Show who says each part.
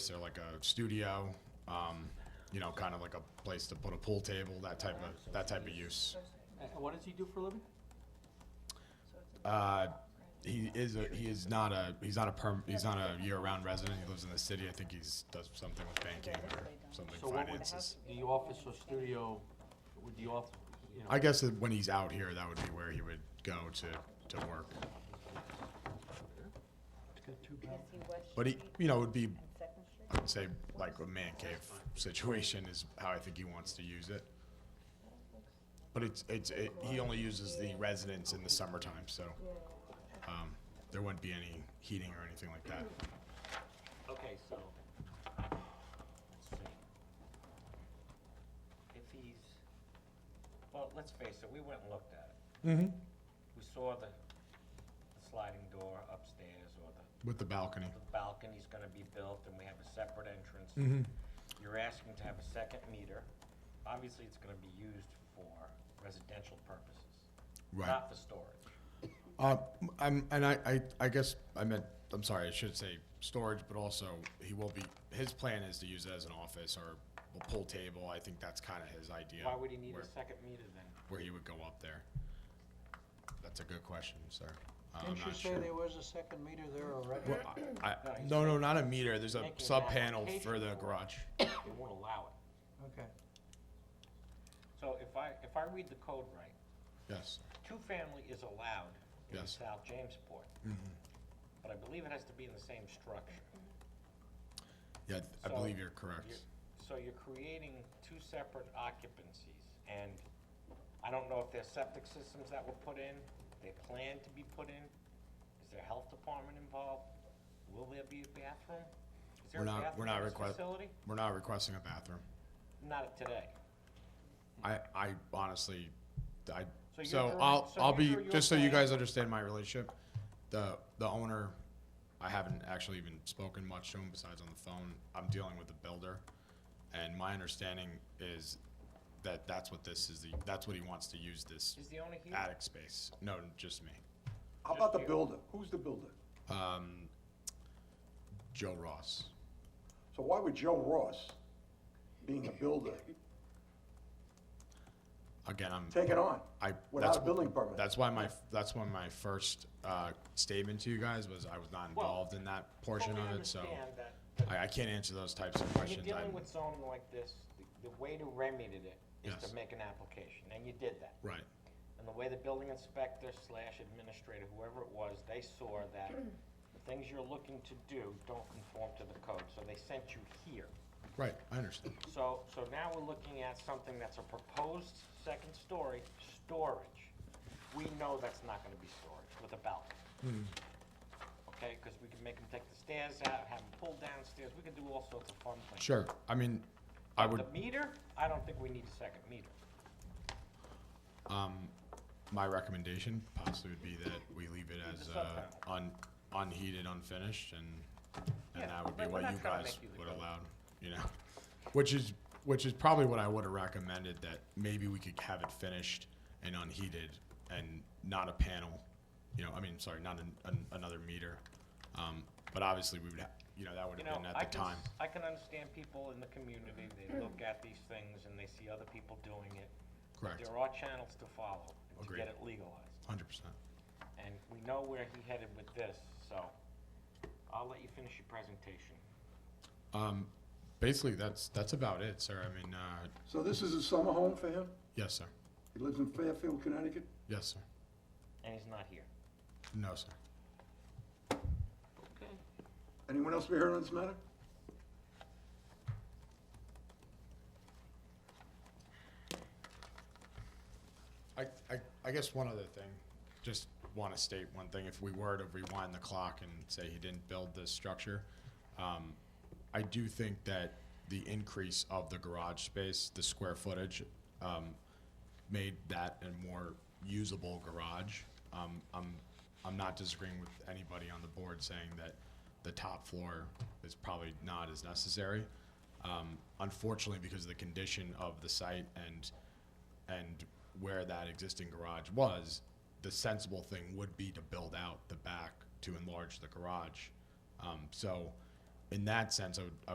Speaker 1: Is there like a studio, um, you know, kind of like a place to put a pool table, that type of, that type of use?
Speaker 2: And Uh, what does he do for a living?
Speaker 1: Uh, he is, a he is not a, he's not a perm, he's not a year-round resident, he lives in the city, I think he's, does something with banking or something
Speaker 2: So what would
Speaker 1: finances.
Speaker 2: the office or studio, would the off, you know?
Speaker 1: I guess that when he's out here, that would be where he would go to, to work.
Speaker 2: It's got two bedrooms.
Speaker 1: But he, you know, would be,
Speaker 3: Second Street?
Speaker 1: I'd say, like a man cave situation is how I think he wants to use it. But it's, it's, it, he only uses the residents in the summertime, so, um, there wouldn't be any heating or anything like that.
Speaker 4: Okay, so, let's see. If he's, well, let's face it, we went and looked at it.
Speaker 1: Mm-hmm.
Speaker 4: We saw the the sliding door upstairs or the
Speaker 1: With the balcony.
Speaker 4: the balcony's gonna be built and we have a separate entrance.
Speaker 1: Mm-hmm.
Speaker 4: You're asking to have a second meter. Obviously, it's gonna be used for residential purposes,
Speaker 1: Right.
Speaker 4: not for storage.
Speaker 1: Uh, I'm, and I, I, I guess I meant, I'm sorry, I should say storage, but also he will be, his plan is to use it as an office or a pool table. I think that's kind of his idea.
Speaker 4: Why would he need
Speaker 1: where-
Speaker 4: a second meter then?
Speaker 1: Where he would go up there. That's a good question, sir. Uh, I'm
Speaker 2: Didn't you
Speaker 1: not
Speaker 2: say
Speaker 1: sure.
Speaker 2: there was a second meter there
Speaker 1: Well,
Speaker 2: already?
Speaker 1: I, I- no, no, not a meter. There's a
Speaker 4: Making an
Speaker 1: sub panel for
Speaker 4: application
Speaker 1: the
Speaker 4: for it.
Speaker 1: garage.
Speaker 4: They won't allow it.
Speaker 2: Okay.
Speaker 4: So if I, if I read the code right,
Speaker 1: Yes.
Speaker 4: two-family is allowed in
Speaker 1: Yes. Mm-hmm.
Speaker 4: South Jamesport. But I believe it has to be in the same structure.
Speaker 1: Yeah, I
Speaker 4: So
Speaker 1: believe you're correct.
Speaker 4: you're- So you're creating two separate occupancies, and I don't know if there's septic systems that were put in, they plan to be put in. Is there health department involved? Will there be a bathroom? Is there
Speaker 1: We're
Speaker 4: a
Speaker 1: not, we're
Speaker 4: bathroom
Speaker 1: not
Speaker 4: in this
Speaker 1: requesting,
Speaker 4: facility?
Speaker 1: we're not requesting a bathroom.
Speaker 4: Not today.
Speaker 1: I, I honestly, I,
Speaker 4: So you're
Speaker 1: so
Speaker 4: direct-
Speaker 1: I'll,
Speaker 4: so
Speaker 1: I'll
Speaker 4: you're
Speaker 1: be,
Speaker 4: sure you're
Speaker 1: just so you
Speaker 4: saying-
Speaker 1: guys understand my relationship, the, the owner, I haven't actually even spoken much to him besides on the phone. I'm dealing with the builder. And my understanding is that that's what this is, the that's what he wants to use this
Speaker 4: Is the owner here?
Speaker 1: attic space. No, just me.
Speaker 5: How about the builder? Who's the builder?
Speaker 1: Um, Joe Ross.
Speaker 5: So why would Joe Ross, being a builder,
Speaker 1: Again, I'm.
Speaker 5: take it on?
Speaker 1: I,
Speaker 5: Without
Speaker 1: that's,
Speaker 5: a building permit?
Speaker 1: that's why my, that's why my first, uh, statement to you guys was I was not
Speaker 4: Well,
Speaker 1: involved in that portion
Speaker 4: Totally
Speaker 1: of it, so.
Speaker 4: understand that, but
Speaker 1: I, I can't answer those types of
Speaker 4: When you're
Speaker 1: questions.
Speaker 4: dealing
Speaker 1: I'm-
Speaker 4: with zoning like this, the- the way to remedy it is
Speaker 1: Yes.
Speaker 4: to make an application, and you did that.
Speaker 1: Right,
Speaker 4: And the way the building inspector slash administrator, whoever it was, they saw that the things you're looking to do don't conform to the code, so they sent you here.
Speaker 1: right, I understand.
Speaker 4: So, so now we're looking at something that's a proposed second story, storage. We know that's not gonna be storage with a balcony.
Speaker 1: Hmm.
Speaker 4: Okay, cause we can make them take the stairs out, have them pull downstairs, we can do all sorts of fun things.
Speaker 1: Sure, I mean, I would,
Speaker 4: The meter, I don't think we need a second meter.
Speaker 1: um, my recommendation possibly would be that we leave it as,
Speaker 4: the
Speaker 1: uh,
Speaker 4: subtitle.
Speaker 1: un, unheated, unfinished, and,
Speaker 4: Yeah,
Speaker 1: and that would be
Speaker 4: but we're
Speaker 1: what
Speaker 4: not
Speaker 1: you
Speaker 4: trying to
Speaker 1: guys
Speaker 4: make you the
Speaker 1: would
Speaker 4: coach.
Speaker 1: allow, you know? Which is, which is probably what I would have recommended, that maybe we could have it finished and unheated and not a panel, you know, I mean, sorry, not an, an, another meter. Um, but obviously we would, ha- you know, that would
Speaker 4: You
Speaker 1: have
Speaker 4: know,
Speaker 1: been
Speaker 4: I
Speaker 1: at the
Speaker 4: can,
Speaker 1: time.
Speaker 4: s- I can understand people in the community, they look at these things and they see other people doing it. But
Speaker 1: Correct.
Speaker 4: There are channels to follow and to
Speaker 1: Agreed.
Speaker 4: get it legalized,
Speaker 1: Hundred percent.
Speaker 4: and we know where he headed with this, so I'll let you finish your presentation.
Speaker 1: Um, basically, that's, that's about it, sir. I mean, uh,
Speaker 5: So this is a summer home for him?
Speaker 1: yes, sir.
Speaker 5: He lives in Fairfield, Connecticut?
Speaker 1: Yes, sir.
Speaker 4: And he's not here.
Speaker 1: No, sir.
Speaker 4: Okay.
Speaker 5: Anyone else be heard on this matter?
Speaker 1: I, I, I guess one other thing, just want to state one thing, if we were to rewind the clock and say he didn't build this structure, um, I do think that the increase of the garage space, the square footage, um, made that a more usable garage. Um, I'm, I'm not disagreeing with anybody on the board saying that the top floor is probably not as necessary. Um, unfortunately, because of the condition of the site and, and where that existing garage was, the sensible thing would be to build out the back to enlarge the garage. Um, so in that sense, I would, I